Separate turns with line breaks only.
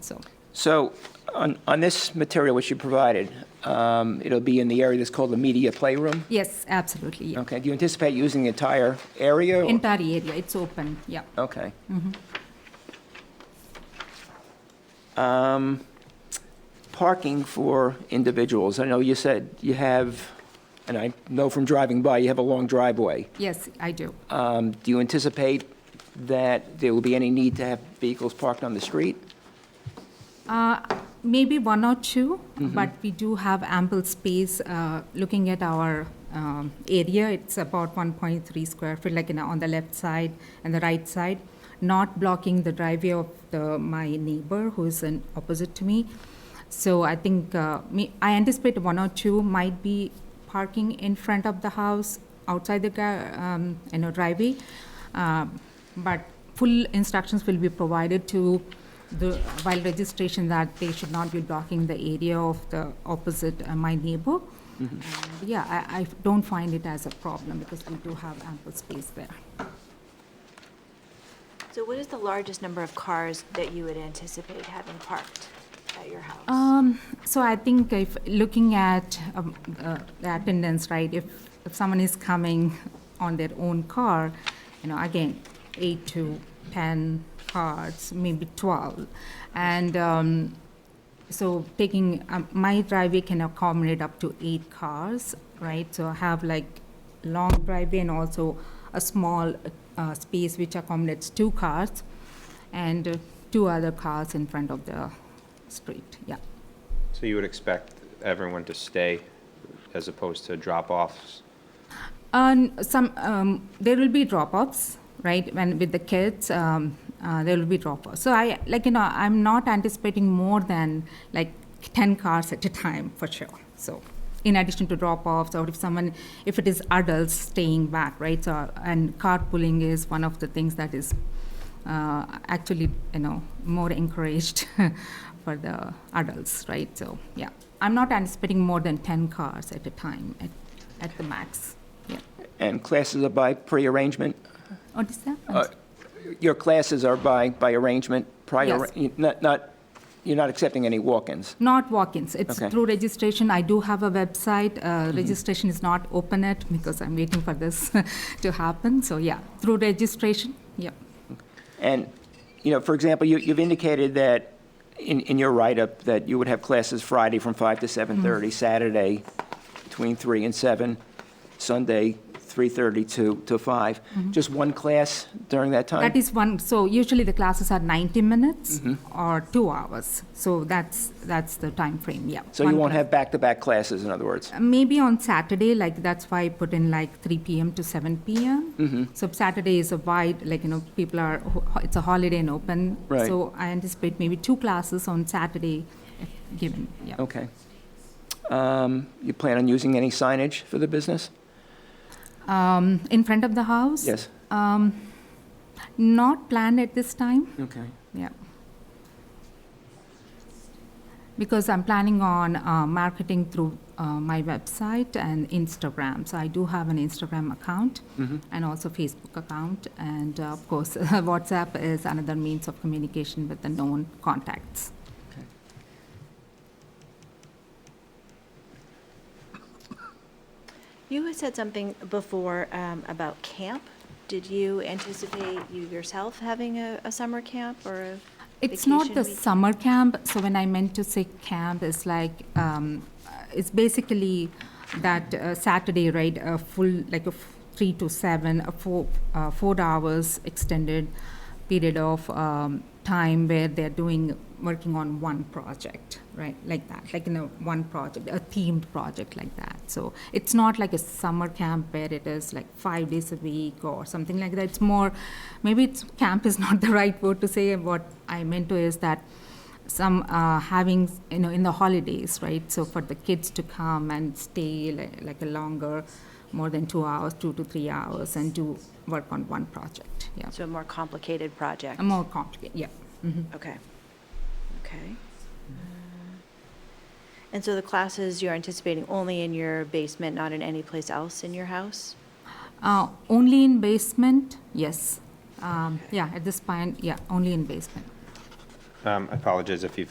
So,
So on, on this material which you provided, um, it'll be in the area that's called the media playroom?
yes, absolutely, yeah.
Okay, do you anticipate using the entire area? or-
Entire area, it's open, yeah.
Okay. Um, Um, Parking for individuals, I know you said you have, and I know from driving by, you have a long driveway.
Yes, I do.
Um, Do you anticipate that there will be any need to have vehicles parked on the street?
Uh, Maybe one or two, but we do have ample space. uh, Looking at our um, area, it's about 1.3 square feet, like you know, on the left side and the right side, not blocking the driveway of the- my neighbor who is in opposite to me. So I think, uh, me- I anticipate one or two might be parking in front of the house, outside the, gar- um, you know, driveway. Um, But full instructions will be provided to the, while registration, that they should not be blocking the area of the opposite uh, my neighbor. And, Yeah, I, I don't find it as a problem because we do have ample space there.
So what is the largest number of cars that you would anticipate having parked at your house?
Um, so I think if, looking at, um, uh, the attendance, right, if, if someone is coming on their own car, you know, again, eight to ten cars, maybe twelve. And, um, so taking, um, my driveway can accommodate up to eight cars, right? So I have like long driveway and also a small, uh, space which accommodates two cars and uh, two other cars in front of the street, yeah.
So you would expect everyone to stay as opposed to drop-offs?
And some, um, there will be drop-offs, right? When with the kids, um, uh, there will be drop-offs. So I, like you know, I'm not anticipating more than like ten cars at a time for sure. So in addition to drop-offs, or if someone, if it is adults staying back, right? So and carpooling is one of the things that is uh, actually, you know, more encouraged for the adults, right? So yeah, I'm not anticipating more than ten cars at a time at, at the max. Yeah.
And classes are by pre-arrangement?
What is that?
Uh, Your classes are by, by arrangement, prior,
Yes.
you- not, not, you're not accepting any walk-ins?
Not walk-ins. It's
Okay. Mm-hmm.
through registration. I do have a website. Uh, Registration is not open yet because I'm waiting for this to happen. So yeah, through registration, yeah.
And, you know, for example, you, you've indicated that in, in your write-up that you would have classes Friday from 5 to
Mm-hmm.
7:30, Saturday between 3 and 7, Sunday 3:30 to, to 5.
Mm-hmm.
Just one class during that time?
That is one, so usually the classes are 90 minutes
Mm-hmm.
or two hours. So that's, that's the time frame. yeah.
So you
One
won't
class.
have back-to-back classes, in other words?
Maybe on Saturday, like, that's why I put in like 3 PM to 7 PM.
Mm-hmm.
So Saturday is a wide, like, you know, people are, it's a holiday and open.
Right.
So I anticipate maybe two classes on Saturday, if given, yeah.
Okay. Um, You plan on using any signage for the business?
Um, In front of the house?
Yes?
Um, Not planned at this time,
Okay.
yeah. Because I'm planning on uh, marketing through uh, my website and Instagram. So I do have an Instagram account and also Facebook account. And uh, of course, WhatsApp is another means of communication with the known contacts.
You had said something before um, about camp. Did you anticipate you yourself having a, a summer camp or a
It's not
vacation
the
week?
summer camp, so when I meant to say camp, it's like, um, uh, it's basically that uh, Saturday, right, a full, like a f- three to seven, a four, uh, four hours extended period of um, time where they're doing, working on one project, right, like that, like in a one project, a themed project like that. So it's not like a summer camp where it is like five days a week or something like that. It's more, maybe it's, camp is not the right word to say. What I meant to is that some uh, having, you know, in the holidays, right? So for the kids to come and stay like, like a longer, more than two hours, two to three hours, and do work on one project. Yeah,
So a more complicated project?
a more complicated. Yeah. Mhm.
Okay, okay. Uh, And so the classes you're anticipating only in your basement, not in any place else in your house?
Uh, only in basement, yes. Um, yeah, at this point, yeah, only in basement.
Um, I apologize if you've